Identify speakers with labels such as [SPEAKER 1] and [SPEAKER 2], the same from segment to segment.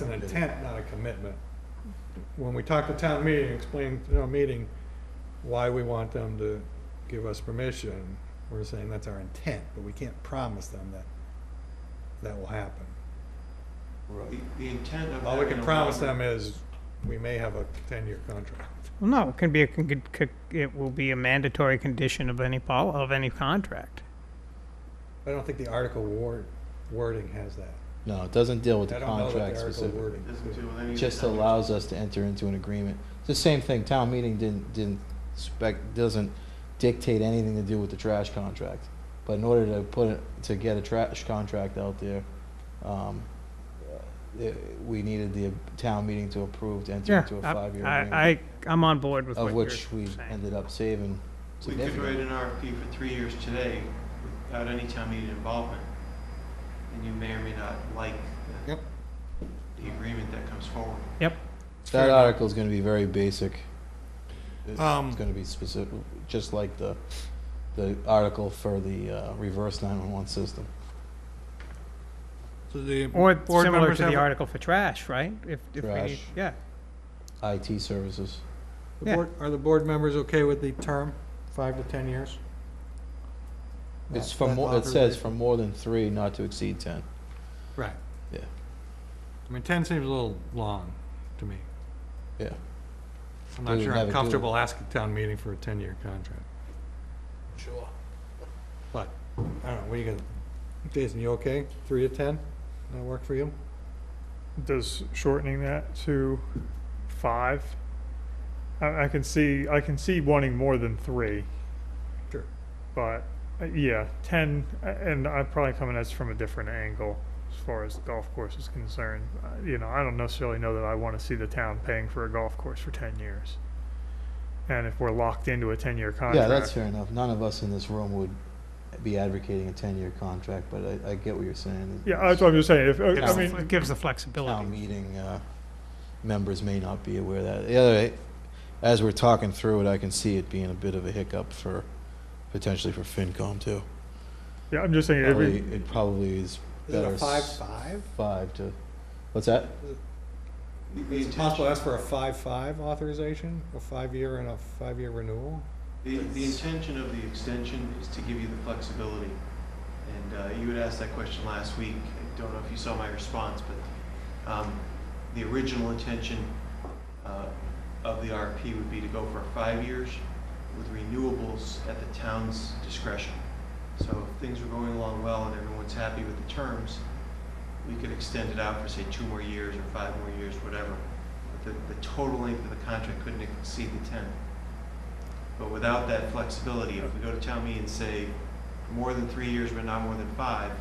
[SPEAKER 1] It's an intent, not a commitment. When we talk to town meeting, explain to town meeting why we want them to give us permission, we're saying that's our intent, but we can't promise them that that will happen.
[SPEAKER 2] The the intent of.
[SPEAKER 1] All we
[SPEAKER 2] having
[SPEAKER 1] can
[SPEAKER 2] a
[SPEAKER 1] promise
[SPEAKER 2] longer-
[SPEAKER 1] them is we may have a ten-year contract.
[SPEAKER 3] Well, no, it can be a, con- con- con- it will be a mandatory condition of any pol, of any contract.
[SPEAKER 1] I don't think the article word, wording has that.
[SPEAKER 4] No, it doesn't deal with
[SPEAKER 1] I
[SPEAKER 4] the
[SPEAKER 1] don't know that the
[SPEAKER 4] contract
[SPEAKER 1] article
[SPEAKER 4] specifically.
[SPEAKER 1] wording-
[SPEAKER 2] Doesn't do with
[SPEAKER 4] It
[SPEAKER 2] any.
[SPEAKER 4] just
[SPEAKER 2] intent.
[SPEAKER 4] allows us to enter into an agreement. It's the same thing, town meeting didn't, didn't spec, doesn't dictate anything to do with the trash contract. But in order to put it, to get a trash contract out there, um, it, we needed the town meeting to approve to enter
[SPEAKER 3] Yeah,
[SPEAKER 4] into a
[SPEAKER 3] I,
[SPEAKER 4] five-year
[SPEAKER 3] I,
[SPEAKER 4] agreement.
[SPEAKER 3] I- I'm on board with what
[SPEAKER 4] Of
[SPEAKER 3] you're
[SPEAKER 4] which we
[SPEAKER 3] saying.
[SPEAKER 4] ended up saving
[SPEAKER 2] We could
[SPEAKER 4] significantly.
[SPEAKER 2] write an RFP for three years today without any town meeting involvement. And you may or may not like the
[SPEAKER 1] Yep.
[SPEAKER 2] the agreement that comes forward.
[SPEAKER 3] Yep,
[SPEAKER 4] That article's gonna be very basic. It's
[SPEAKER 1] Um,
[SPEAKER 4] gonna be specific, just like the, the article for the uh, reverse nine-one-one system.
[SPEAKER 5] So the
[SPEAKER 3] or
[SPEAKER 5] board
[SPEAKER 3] similar
[SPEAKER 5] members
[SPEAKER 3] to the
[SPEAKER 5] have,
[SPEAKER 3] article for trash, right? If, if we need,
[SPEAKER 4] Trash.
[SPEAKER 3] yeah,
[SPEAKER 4] IT services.
[SPEAKER 1] The
[SPEAKER 3] Yeah.
[SPEAKER 1] board, are the board members okay with the term, five to ten years?
[SPEAKER 4] It's
[SPEAKER 1] That-
[SPEAKER 4] for
[SPEAKER 1] that
[SPEAKER 4] more, it says
[SPEAKER 1] authorization?
[SPEAKER 4] for more than three, not to exceed ten.
[SPEAKER 1] Right.
[SPEAKER 4] Yeah.
[SPEAKER 1] I mean, ten seems a little long to me.
[SPEAKER 4] Yeah.
[SPEAKER 1] I'm
[SPEAKER 4] We
[SPEAKER 1] not
[SPEAKER 4] would
[SPEAKER 1] sure
[SPEAKER 4] never
[SPEAKER 1] I'm
[SPEAKER 4] do it.
[SPEAKER 1] comfortable asking town meeting for a ten-year contract,
[SPEAKER 4] Sure.
[SPEAKER 1] but, I don't know, what are you gonna, Jason, you okay? Three to ten? That work for you?
[SPEAKER 6] does shortening that to five? I, I can see, I can see wanting more than three,
[SPEAKER 1] Sure.
[SPEAKER 6] but uh, yeah, ten, a- and I'm probably coming at this from a different angle as far as the golf course is concerned. Uh, You know, I don't necessarily know that I want to see the town paying for a golf course for ten years. And if we're locked into a ten-year contract.
[SPEAKER 4] Yeah, that's fair enough. None of us in this room would be advocating a ten-year contract, but I, I get what you're saying.
[SPEAKER 6] Yeah, that's what I'm just saying. If, uh, I
[SPEAKER 4] Town-
[SPEAKER 6] mean,
[SPEAKER 3] it gives the
[SPEAKER 4] Town
[SPEAKER 3] flexibility.
[SPEAKER 4] meeting, uh, members may not be aware of that. The other, as we're talking through it, I can see it being a bit of a hiccup for, potentially for FinCom too.
[SPEAKER 6] yeah, I'm just saying,
[SPEAKER 4] Probably,
[SPEAKER 6] every,
[SPEAKER 4] it probably is
[SPEAKER 1] Is it
[SPEAKER 4] better.
[SPEAKER 1] a
[SPEAKER 4] s-
[SPEAKER 1] five-five?
[SPEAKER 4] Five to, what's that?
[SPEAKER 2] The- the
[SPEAKER 1] Is it
[SPEAKER 2] intent-
[SPEAKER 1] possible to ask for a five-five authorization, a five-year and a five-year renewal?
[SPEAKER 2] The, the intention of the extension is to give you the flexibility. And uh, you had asked that question last week. I don't know if you saw my response, but um, the original intention uh, of the RFP would be to go for five years with renewables at the town's discretion. So if things were going along well and everyone's happy with the terms, we could extend it out for, say, two more years or five more years, whatever. But the, the total length of the contract couldn't exceed the 10. But without that flexibility, if we go to town meeting and say, more than three years, but not more than five,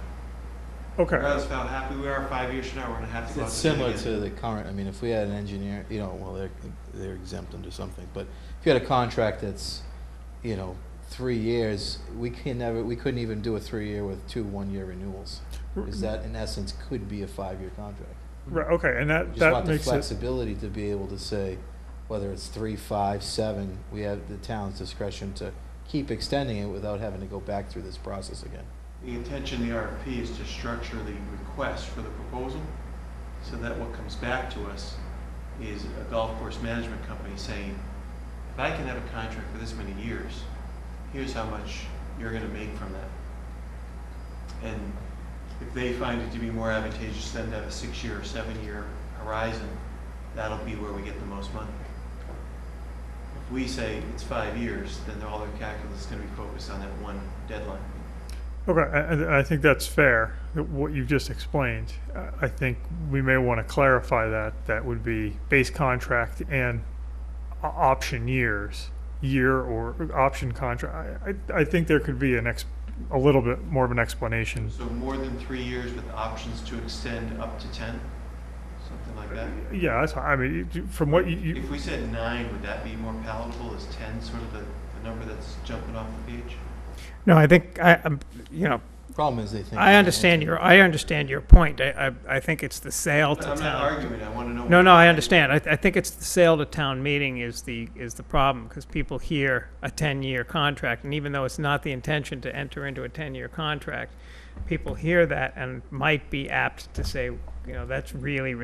[SPEAKER 6] okay.
[SPEAKER 2] regardless of how happy we are, five years from now, we're gonna have to go out
[SPEAKER 4] It's
[SPEAKER 2] to bid
[SPEAKER 4] similar
[SPEAKER 2] again.
[SPEAKER 4] to the current, I mean, if we had an engineer, you know, well, they're, they're exempt under something, but if you had a contract that's, you know, three years, we can never, we couldn't even do a three-year with two one-year renewals. Is that, in essence, could be a five-year contract.
[SPEAKER 6] Right, okay, and
[SPEAKER 4] We
[SPEAKER 6] that,
[SPEAKER 4] just
[SPEAKER 6] that
[SPEAKER 4] want the
[SPEAKER 6] makes it,
[SPEAKER 4] flexibility to be able to say, whether it's three, five, seven, we have the town's discretion to keep extending it without having to go back through this process again.
[SPEAKER 2] The intention of the RFP is to structure the request for the proposal, so that what comes back to us is a golf course management company saying, if I can have a contract for this many years, here's how much you're gonna make from that. And if they find it to be more advantageous than to have a six-year or seven-year horizon, that'll be where we get the most money. If we say it's five years, then all their calculus is gonna be focused on that one deadline.
[SPEAKER 6] okay, a- and I think that's fair, that what you've just explained. I- I think we may want to clarify that, that would be base contract and o- option years, year or option contract. I, I, I think there could be an ex, a little bit more of an explanation.
[SPEAKER 2] So more than three years with options to extend up to 10, something like that?
[SPEAKER 6] Yeah, that's, I mean, you- from what you- you,
[SPEAKER 2] If we said nine, would that be more palatable? Is 10 sort of the, the number that's jumping off the page?
[SPEAKER 3] No, I think, I, I'm, you know,
[SPEAKER 4] Problem is, they think.
[SPEAKER 3] I understand your, I understand your point. I, I, I think it's the sale to
[SPEAKER 2] But I'm not
[SPEAKER 3] town.
[SPEAKER 2] arguing, I want to know.
[SPEAKER 3] No,
[SPEAKER 2] what-
[SPEAKER 3] no, I understand. I, th- I think it's the sale to town meeting is the, is the problem, because people hear a ten-year contract, and even though it's not the intention to enter into a ten-year contract, people hear that and might be apt to say, you know, that's really